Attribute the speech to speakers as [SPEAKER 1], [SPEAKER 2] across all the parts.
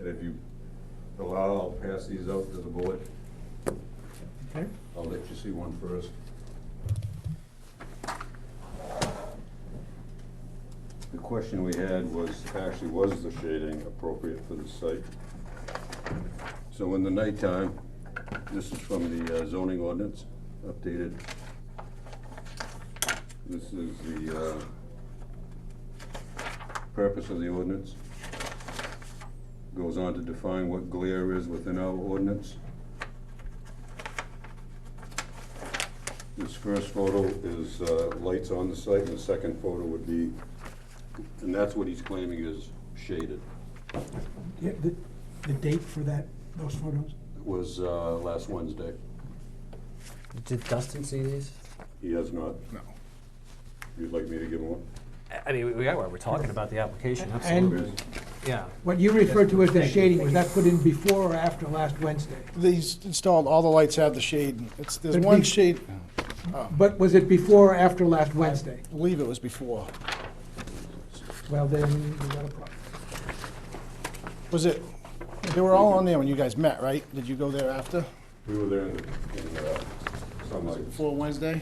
[SPEAKER 1] And if you allow, I'll pass these out to the board.
[SPEAKER 2] Okay.
[SPEAKER 1] I'll let you see one first. The question we had was, actually, was the shading appropriate for the site? So in the nighttime, this is from the uh, zoning ordinance, updated. This is the uh, purpose of the ordinance. Goes on to define what glare is within our ordinance. This first photo is uh, lights on the site, and the second photo would be, and that's what he's claiming is shaded.
[SPEAKER 2] Yeah, the, the date for that, those photos?
[SPEAKER 1] It was uh, last Wednesday.
[SPEAKER 3] Did Dustin see these?
[SPEAKER 1] He has not.
[SPEAKER 4] No.
[SPEAKER 1] You'd like me to give him one?
[SPEAKER 3] I- I mean, we- we are, we're talking about the application, absolutely,
[SPEAKER 2] And
[SPEAKER 3] yeah.
[SPEAKER 2] what you referred to as the
[SPEAKER 3] Thank you,
[SPEAKER 2] shading, was
[SPEAKER 3] thank you.
[SPEAKER 2] that put in before or after last Wednesday?
[SPEAKER 4] These installed, all the lights have the shade. It's, there's
[SPEAKER 2] But
[SPEAKER 4] one
[SPEAKER 2] these-
[SPEAKER 4] shade,
[SPEAKER 2] But was it before or after last Wednesday?
[SPEAKER 4] I believe it was before.
[SPEAKER 2] Well, then, we got a problem.
[SPEAKER 4] Was it, they were all on there when you guys met, right? Did you go there after,
[SPEAKER 1] We were there in in, uh, sunlight.
[SPEAKER 4] before Wednesday?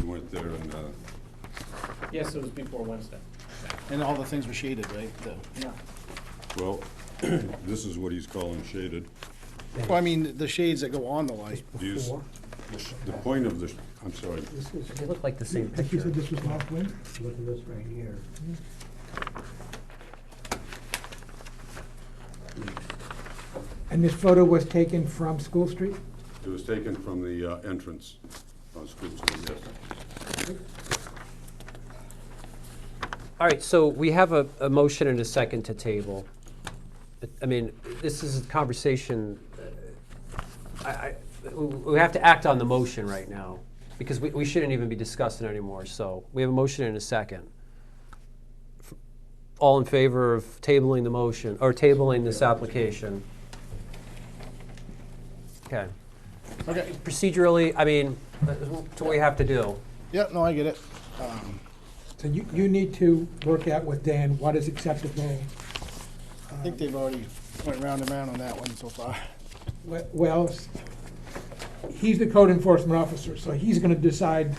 [SPEAKER 1] We went there and, uh,
[SPEAKER 5] Yes, it was before Wednesday.
[SPEAKER 4] And all the things were shaded, right? The-
[SPEAKER 5] No.
[SPEAKER 1] well, this is what he's calling shaded.
[SPEAKER 4] Well, I mean, the shades that go on the light.
[SPEAKER 1] These-
[SPEAKER 2] Before?
[SPEAKER 1] the sh- The point of the, sh- I'm sorry,
[SPEAKER 2] This is,
[SPEAKER 3] They look like the same
[SPEAKER 2] like you
[SPEAKER 3] picture.
[SPEAKER 2] said, this was last Wednesday?
[SPEAKER 6] Look at this right here.
[SPEAKER 2] And this photo was taken from School Street?
[SPEAKER 1] it was taken from the uh, entrance on School Street, yes.
[SPEAKER 3] All right, so we have a, a motion and a second to table. But, I mean, this is a conversation, uh, I, I, we we have to act on the motion right now, because we, we shouldn't even be discussing it anymore, so we have a motion and a second. All in favor of tabling the motion, or tabling this application? Okay.
[SPEAKER 4] Okay,
[SPEAKER 3] Procedurally, I mean, that's what we have to do.
[SPEAKER 4] yeah, no, I get it. Um,
[SPEAKER 2] So you, you need to work out with Dan what is acceptable. uh,
[SPEAKER 4] I think they've already went round and round on that one so far.
[SPEAKER 2] We- Well, s- he's the code enforcement officer, so he's gonna decide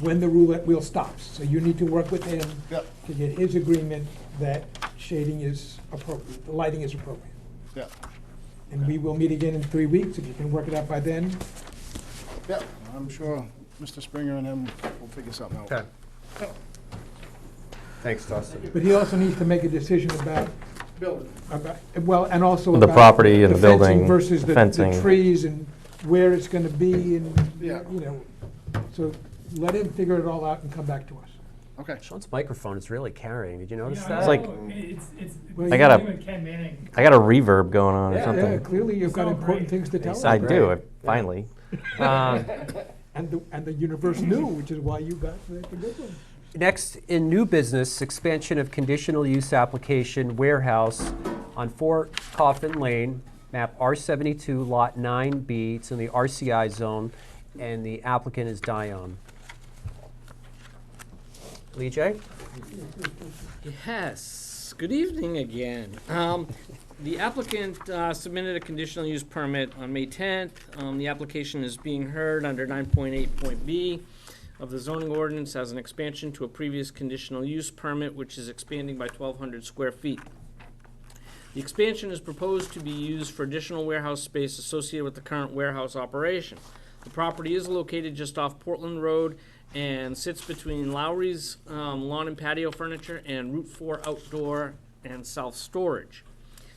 [SPEAKER 2] when the roulette wheel stops. So you need to work with him
[SPEAKER 4] Yep,
[SPEAKER 2] to get his agreement that shading is appropriate, the lighting is appropriate.
[SPEAKER 4] yep,
[SPEAKER 2] And we will meet again in three weeks, if you can work it out by then.
[SPEAKER 4] yep. I'm sure Mr. Springer and him will figure something out.
[SPEAKER 3] Okay. Thanks, Dustin.
[SPEAKER 2] But he also needs to make a decision about,
[SPEAKER 4] Building.
[SPEAKER 2] about, well, and also
[SPEAKER 7] The
[SPEAKER 2] about
[SPEAKER 7] property and the
[SPEAKER 2] fencing
[SPEAKER 7] building,
[SPEAKER 2] Versus the, the
[SPEAKER 7] fencing.
[SPEAKER 2] trees and where it's gonna be and,
[SPEAKER 4] Yeah.
[SPEAKER 2] you know. So let him figure it all out and come back to us.
[SPEAKER 4] Okay.
[SPEAKER 3] Sean's microphone is really carrying. Did you notice
[SPEAKER 5] Yeah,
[SPEAKER 3] that?
[SPEAKER 7] It's like-
[SPEAKER 5] know. It's, it's.
[SPEAKER 2] Well,
[SPEAKER 5] it's
[SPEAKER 2] I
[SPEAKER 7] gotta-
[SPEAKER 5] me with Ken Manning.
[SPEAKER 7] I got a reverb going on or
[SPEAKER 3] Yeah,
[SPEAKER 2] Yeah,
[SPEAKER 7] something.
[SPEAKER 2] clearly you've got
[SPEAKER 5] sound
[SPEAKER 2] important
[SPEAKER 5] great.
[SPEAKER 2] things to
[SPEAKER 3] They
[SPEAKER 2] tell us.
[SPEAKER 3] sound
[SPEAKER 7] I do, I
[SPEAKER 3] Right.
[SPEAKER 7] finally. Um,
[SPEAKER 2] And the, and the universe knew, which is why you got the the good one.
[SPEAKER 3] Next, in new business, expansion of conditional use application warehouse on Fort Coffin Lane, map R72, lot 9B. It's in the RCI zone, and the applicant is Dion. Lee J?
[SPEAKER 5] Yes, good evening again. Um, the applicant uh, submitted a conditional use permit on May tenth. Um, the application is being heard under nine point eight point B of the zoning ordinance as an expansion to a previous conditional use permit, which is expanding by twelve hundred square feet. The expansion is proposed to be used for additional warehouse space associated with the current warehouse operation. The property is located just off Portland Road and sits between Lowry's um, Lawn and Patio Furniture and Route 4 Outdoor and Self Storage.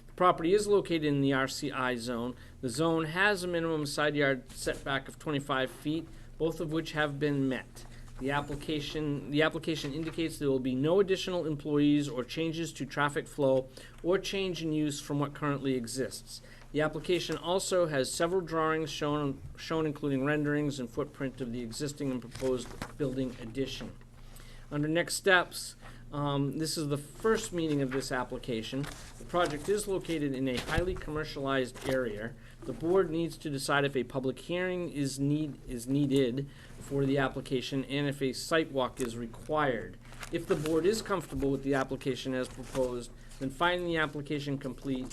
[SPEAKER 5] The property is located in the RCI zone. The zone has a minimum side yard setback of 25 feet, both of which have been met. The application, the application indicates there will be no additional employees or changes to traffic flow or change in use from what currently exists. The application also has several drawings shown, shown including renderings and footprint of the existing and proposed building addition. Under next steps, um, this is the first meeting of this application. The project is located in a highly commercialized area. The board needs to decide if a public hearing is need, is needed for the application and if a site walk is required. If the board is comfortable with the application as proposed, then finding the application complete